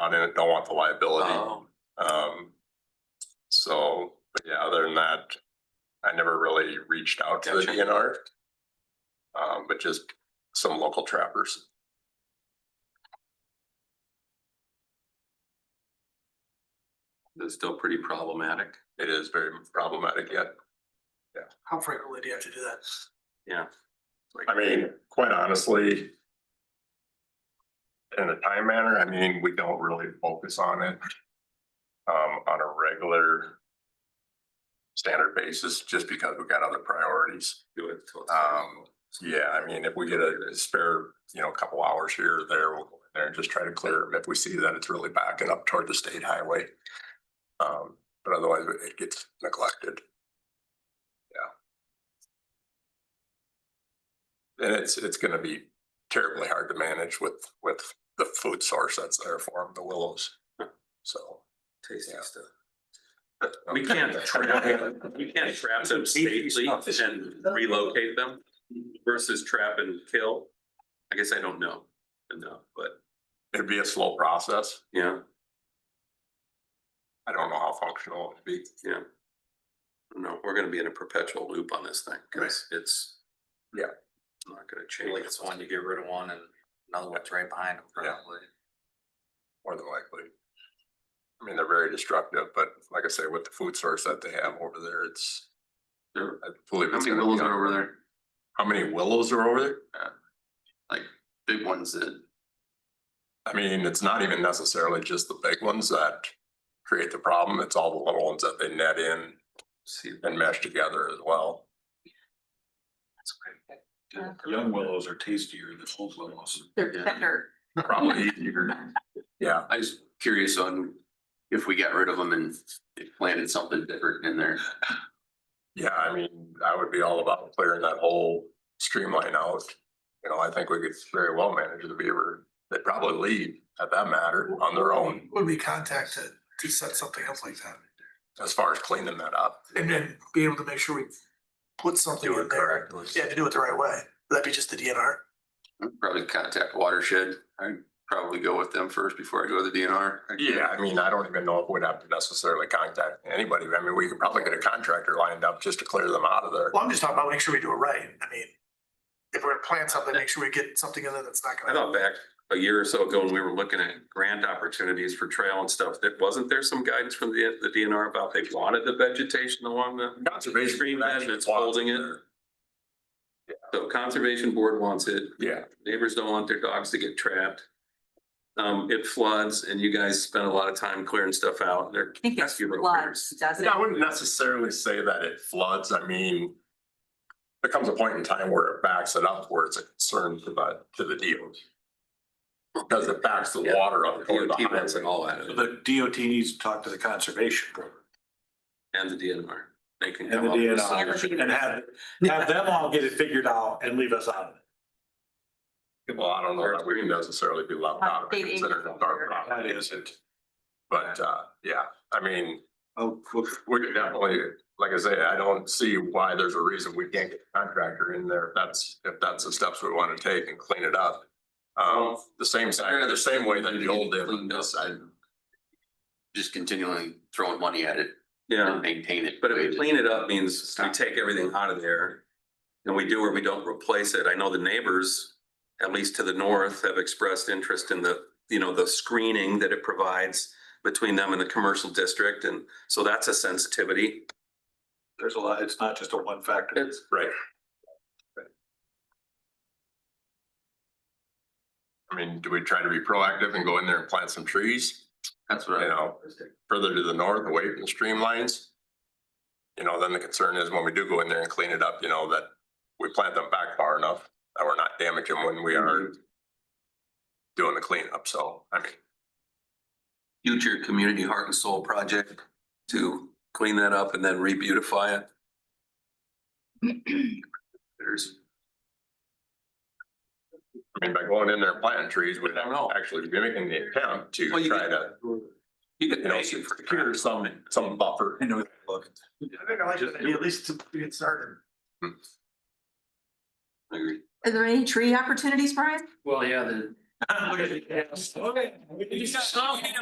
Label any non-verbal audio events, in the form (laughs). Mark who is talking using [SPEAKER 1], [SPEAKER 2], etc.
[SPEAKER 1] not in it, don't want the liability.
[SPEAKER 2] Oh,
[SPEAKER 1] Um, so, but yeah, other than that, I never really reached out to the
[SPEAKER 2] Gotcha.
[SPEAKER 1] DNR. Um, but just some local trappers.
[SPEAKER 2] that's still pretty problematic.
[SPEAKER 1] It is very problematic yet.
[SPEAKER 3] How frequently do you have to do that?
[SPEAKER 1] I mean, quite honestly. In a time manner, I mean, we don't really focus on it. Um, on a regular. Standard basis, just because we've got other priorities.
[SPEAKER 2] Do it till it's-
[SPEAKER 1] Um, yeah, I mean, if we get a spare, you know, a couple hours here or there, we'll go in there and just try to clear them if we see that it's really backing up toward the state highway. Um, but otherwise it gets neglected. Yeah. And it's, it's gonna be terribly hard to manage with, with the food source that's there for them, the willows. So.
[SPEAKER 2] Tasty
[SPEAKER 1] yeah.
[SPEAKER 2] stuff. We can't trap, we can't trap them safely and relocate them versus trap and kill. I guess I don't know enough, but
[SPEAKER 1] It'd be a slow process.
[SPEAKER 2] yeah,
[SPEAKER 1] I don't know how functional it'd be.
[SPEAKER 2] yeah. No, we're gonna be in a perpetual loop on this thing, cause it's.
[SPEAKER 1] Yeah.
[SPEAKER 2] Not gonna
[SPEAKER 4] Feel
[SPEAKER 2] change.
[SPEAKER 4] Like it's one, you get rid of one and another one's right behind them
[SPEAKER 1] Yeah.
[SPEAKER 4] probably.
[SPEAKER 1] more than likely. I mean, they're very destructive, but like I say, with the food source that they have over there, it's,
[SPEAKER 2] There-
[SPEAKER 1] I believe
[SPEAKER 5] How
[SPEAKER 1] it's
[SPEAKER 5] many
[SPEAKER 1] gonna
[SPEAKER 5] willows
[SPEAKER 1] be,
[SPEAKER 5] are
[SPEAKER 1] on-
[SPEAKER 5] over there?
[SPEAKER 1] how many willows are over there?
[SPEAKER 5] Big ones that,
[SPEAKER 1] I mean, it's not even necessarily just the big ones that create the problem, it's all the little ones that they net in
[SPEAKER 2] See,
[SPEAKER 1] and mesh together as
[SPEAKER 5] (laughs)
[SPEAKER 1] well.
[SPEAKER 6] Young willows are tastier than old willows.
[SPEAKER 7] They're
[SPEAKER 5] Yeah.
[SPEAKER 7] tender.
[SPEAKER 1] Probably, yeah,
[SPEAKER 5] I was curious on if we got rid of them and planted something different in there.
[SPEAKER 1] yeah, I mean, I would be all about clearing that whole streamline out. You know, I think we could very well manage the beaver, they'd probably leave at that matter on their own
[SPEAKER 3] Would we contact to, to set something up like that?
[SPEAKER 1] as far as cleaning that up.
[SPEAKER 3] And then be able to make sure we put something in there? Yeah, to do it the right way. Would that be just the DNR?
[SPEAKER 5] I'd Probably contact watershed. I'd probably go with them first before I go to the DNR.
[SPEAKER 1] Yeah, I mean, I don't even know if we'd have to necessarily contact anybody. I mean, we could probably get a contractor lined up just to clear them out of there.
[SPEAKER 3] Well, I'm just talking about making sure we do it right. I mean, if we're gonna plan something, make sure we get something in there that's not
[SPEAKER 2] I
[SPEAKER 3] gonna.
[SPEAKER 2] thought back a year or so ago when we were looking at grant opportunities for trail and stuff, that wasn't there some guidance from the, the DNR about they wanted the vegetation along the
[SPEAKER 1] Conservation
[SPEAKER 2] Stream bed that's
[SPEAKER 1] Watch
[SPEAKER 2] holding it.
[SPEAKER 1] there.
[SPEAKER 2] So conservation board wants it,
[SPEAKER 1] Yeah,
[SPEAKER 2] neighbors don't want their dogs to get trapped. Um, it floods and you guys spend a lot of time clearing stuff out. They're
[SPEAKER 7] I think it's
[SPEAKER 2] rescue
[SPEAKER 7] floods,
[SPEAKER 2] repairs.
[SPEAKER 7] doesn't
[SPEAKER 1] And
[SPEAKER 7] it?
[SPEAKER 1] I wouldn't necessarily say that it floods. I mean, there comes a point in time where it backs it up where it's a concern to the, to the DOT. Because it backs the water up toward the
[SPEAKER 2] DOT wants it
[SPEAKER 1] highway.
[SPEAKER 2] all out of it
[SPEAKER 6] The DOT needs to talk to the conservation board
[SPEAKER 2] and the DNR. They can
[SPEAKER 6] and
[SPEAKER 2] come
[SPEAKER 6] the
[SPEAKER 2] up with a
[SPEAKER 7] DNR.
[SPEAKER 2] solution.
[SPEAKER 6] DNR and have, have them all get it figured out and leave us out of it.
[SPEAKER 1] Well, I don't know that we can necessarily be left out. of it, considering it's our problem.
[SPEAKER 6] That isn't.
[SPEAKER 1] But, uh, yeah, I mean,
[SPEAKER 6] Oh,
[SPEAKER 1] We could definitely, like I say, I don't see why there's a reason we can't get a contractor in there. if That's, if that's the steps we want to take and clean it up. Um, the same, side- the same way that the old did on this side.
[SPEAKER 5] Just continually throwing money at it
[SPEAKER 2] Yeah,
[SPEAKER 5] and maintain it.
[SPEAKER 2] but if we clean it up means we take everything out of there. And we do or we don't replace it. I know the neighbors, at least to the north, have expressed interest in the, you know, the screening that it provides between them and the commercial district. And so that's a sensitivity.
[SPEAKER 6] there's a lot, it's not just a one factor.
[SPEAKER 2] It's,
[SPEAKER 1] Right. I mean, do we try to be proactive and go in there and plant some trees,
[SPEAKER 5] That's
[SPEAKER 1] you
[SPEAKER 5] what I,
[SPEAKER 1] know, further to the north, away from the streamlines? You know, then the concern is when we do go in there and clean it up, you know, that we plant them back far enough that we're not damaging when we are
[SPEAKER 2] Mm-hmm.
[SPEAKER 1] doing the cleanup, so, I mean,
[SPEAKER 2] future community heart and soul project to clean that up and then re-beautify it. (clears throat)
[SPEAKER 5] there's,
[SPEAKER 1] I mean, by going in there and planting trees, we're
[SPEAKER 2] I don't know.
[SPEAKER 1] actually mimicking the attempt to
[SPEAKER 2] Well, you
[SPEAKER 1] try
[SPEAKER 2] could-
[SPEAKER 1] to,
[SPEAKER 2] You could
[SPEAKER 1] you know,
[SPEAKER 2] pay for
[SPEAKER 1] secure some, some buffer.
[SPEAKER 6] I know, look.
[SPEAKER 3] I think I like that idea, at least to get started.
[SPEAKER 7] Are there any tree opportunities, Brian?
[SPEAKER 4] Well, yeah, the
[SPEAKER 6] Okay.